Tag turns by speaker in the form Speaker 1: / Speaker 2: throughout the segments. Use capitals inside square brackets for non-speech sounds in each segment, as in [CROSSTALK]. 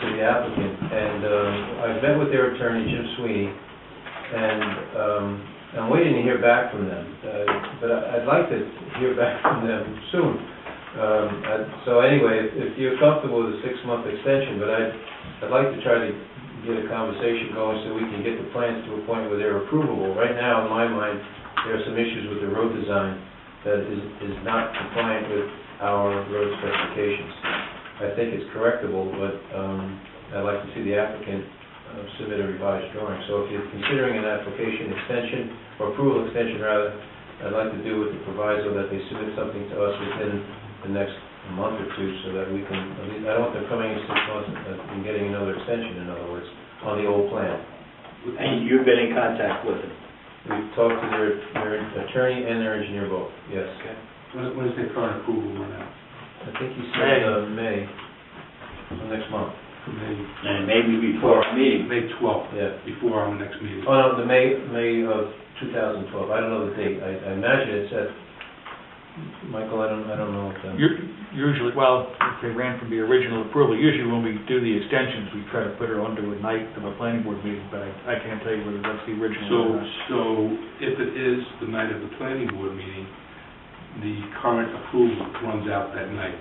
Speaker 1: the applicant, and um, I've met with their attorney, Jim Sweeney, and um, I'm waiting to hear back from them, Uh, but I- I'd like to hear [LAUGHS] back from them soon. Um, I- So anyway, if- if you're comfortable with a six-month extension, but I'd, I'd like to try to get a conversation going so we can get the plans to a point where they're approvable. Right now, in my mind, there are some issues with the road design that is, is not compliant with our road specifications. I think it's correctable, but um, I'd like to see the applicant uh, submit a revised drawing. So if you're considering an application extension, or approval extension rather, I'd like to do with the proviso that they submit something to us within the next month or two so that we can, at least, I don't want them coming in six months and and getting another extension, in other words, on the old plan.
Speaker 2: And you've been in contact with him?
Speaker 1: We've talked to their, their attorney and their engineer both, yes.
Speaker 3: When, when is their current approval run out?
Speaker 1: I think he said, uh, May, so next month,
Speaker 3: May,
Speaker 2: And maybe before our meeting.
Speaker 3: May twelfth,
Speaker 1: yeah.
Speaker 3: before our next meeting.
Speaker 1: Oh, no, the May, May of 2012, I don't know the date, I, I imagine it's at, Michael, I don't, I don't know what the...
Speaker 4: U- Usually, well, if they ran from the original approval, usually when we do the extensions, we try to put it onto a night of a planning board meeting, but I I can't tell you whether that's
Speaker 3: So,
Speaker 4: the original or not.
Speaker 3: so if it is the night of the planning board meeting, the current approval runs out that night.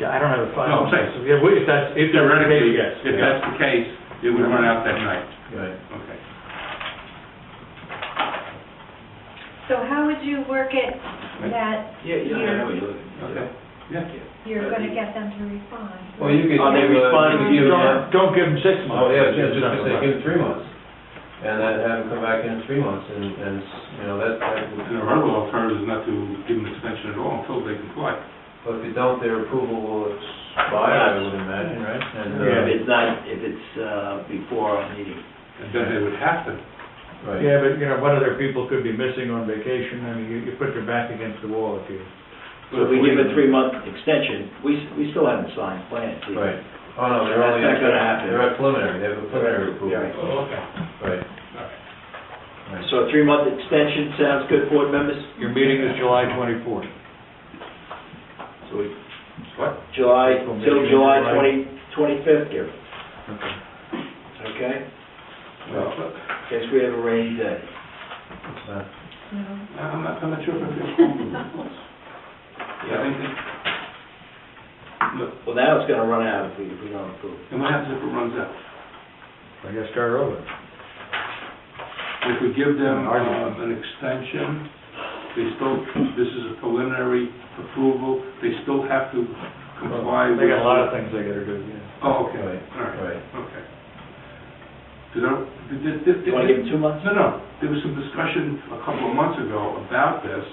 Speaker 4: Yeah, I don't have a
Speaker 3: No, I'm
Speaker 4: final.
Speaker 3: saying-
Speaker 4: so, Yeah, we- if that's, if that's the case,
Speaker 3: Theoretically,
Speaker 4: yes.
Speaker 3: if
Speaker 4: yeah.
Speaker 3: that's the case, it would run out that night.
Speaker 1: Right.
Speaker 3: Okay.
Speaker 5: So how would you work it that
Speaker 2: Yeah,
Speaker 5: yeah, I know
Speaker 3: Okay.
Speaker 5: you're going to get them to respond?
Speaker 1: Well, you could...
Speaker 2: Are they
Speaker 1: give, uh,
Speaker 2: responding
Speaker 1: give,
Speaker 2: to
Speaker 1: uh,
Speaker 4: Don't, don't give them six months.
Speaker 1: Oh, yeah, just, just to say, give them three months, and then have them come back in three months, and, and, you know, that, that would...
Speaker 3: And our other alternative is not to give an extension at all until they comply.
Speaker 1: But if you don't, their approval will expire, I would imagine, right? And, uh,
Speaker 2: If it's not, if it's uh, before our meeting.
Speaker 3: And then they would have to,
Speaker 1: Right.
Speaker 4: Yeah, but, you know, what other people could be missing on vacation, I mean, you, you put your back against the wall if you.
Speaker 2: So if we give a three-month extension, we, s- we still haven't signed plans. either.
Speaker 1: Right. Oh, no, they're only...
Speaker 2: That's not gonna happen.
Speaker 1: They're at preliminary, they have a preliminary approval.
Speaker 2: Yeah.
Speaker 3: oh, okay.
Speaker 1: Right. Right.
Speaker 2: So a three-month extension sounds good, board members?
Speaker 4: Your meeting is July twenty-fourth.
Speaker 2: So we-
Speaker 3: What?
Speaker 2: July, till July twenty, twenty-fifth here,
Speaker 4: Okay.
Speaker 2: okay?
Speaker 3: Well,
Speaker 2: Guess we have a rainy day.
Speaker 1: It's not-
Speaker 5: No.
Speaker 3: I'm not, I'm not sure if I feel comfortable. Yeah, I think that- Look,
Speaker 2: Well, now it's gonna run out if we, if we don't approve.
Speaker 3: and what happens if it runs out?
Speaker 4: I guess start over.
Speaker 3: If we give them
Speaker 4: Our-
Speaker 3: um, an extension, they still, this is a preliminary approval, they still have to comply with...
Speaker 4: They got a lot of things they gotta do, yeah.
Speaker 3: Oh, okay,
Speaker 1: Right,
Speaker 3: all right,
Speaker 1: right.
Speaker 3: okay. Did I, did, did- did...
Speaker 2: You wanna give them two months?
Speaker 3: No, no, there was some discussion a couple of months ago about this,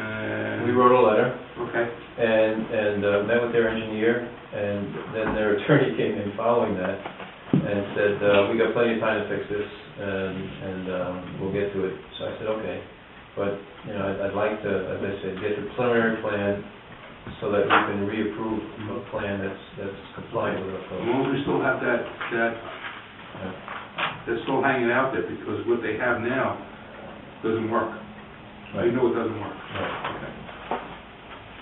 Speaker 3: and...
Speaker 1: We wrote a letter,
Speaker 3: Okay,
Speaker 1: and, and uh, met with their engineer, and then their [LAUGHS] attorney came in following that and said, uh, we got plenty of time to fix this, and, and um, we'll get to it. So I said, okay, but, you know, I'd- I'd like to, as I said, get the preliminary plan so that we can reapprove a plan that's, that's compliant with our
Speaker 3: as
Speaker 1: code.
Speaker 3: long as we still have that, that, that's still hanging out there, because what they have now doesn't work. We
Speaker 1: Right.
Speaker 3: know it doesn't work.
Speaker 1: Right.
Speaker 3: Okay.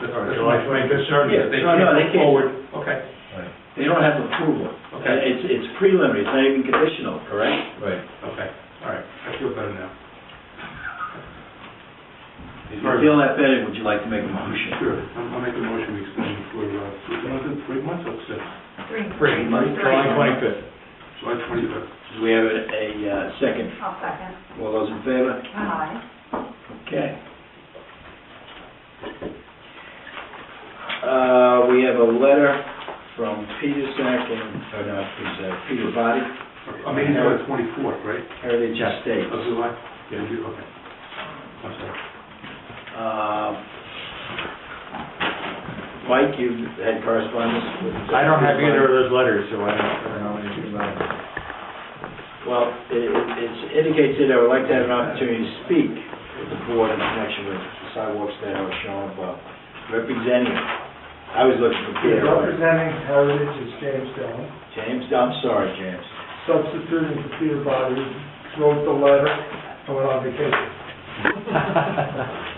Speaker 3: That's-
Speaker 4: All right,
Speaker 3: that's
Speaker 4: July
Speaker 3: my-
Speaker 4: twenty-fifth, certainly.
Speaker 2: Yeah, no, no, they can't.
Speaker 4: Forward.
Speaker 3: Okay,
Speaker 2: They don't have approval.
Speaker 3: Okay.
Speaker 2: And It's, it's preliminary, it's not even conditional, correct?
Speaker 1: Right.
Speaker 3: okay, all right, I feel better now.
Speaker 2: If you feel that better, would you like to make a motion?
Speaker 3: Sure, I'll I'll make a motion to extend for, uh, three months, three months, or six,
Speaker 5: Three.
Speaker 4: Free, July twenty-fifth.
Speaker 3: July twenty-fifth.
Speaker 2: Do we have a, a uh, second?
Speaker 5: I'll second.
Speaker 2: All those in favor?
Speaker 5: Aye.
Speaker 2: Okay. Uh, we have a letter from Peter Sack and, or no, it's, uh, Peter Body,
Speaker 3: I mean, it's on the uh, twenty-fourth, right,
Speaker 2: Heritage Estates.
Speaker 3: of July? Yeah. Okay. I'm sorry.
Speaker 2: Uh, Mike, you've had correspondence with...
Speaker 4: I don't have either of those letters, so I don't, I don't know anything about it.
Speaker 2: Well, it, it it's indicates that I would like to have an opportunity to speak with the board in connection with the sidewalks that are shown above. Representing, I was looking for Peter.
Speaker 6: Representing Heritage is James Dillon.
Speaker 2: James, I'm sorry, James.
Speaker 6: Substituting for Peter Body, wrote the letter, I went on vacation. Um,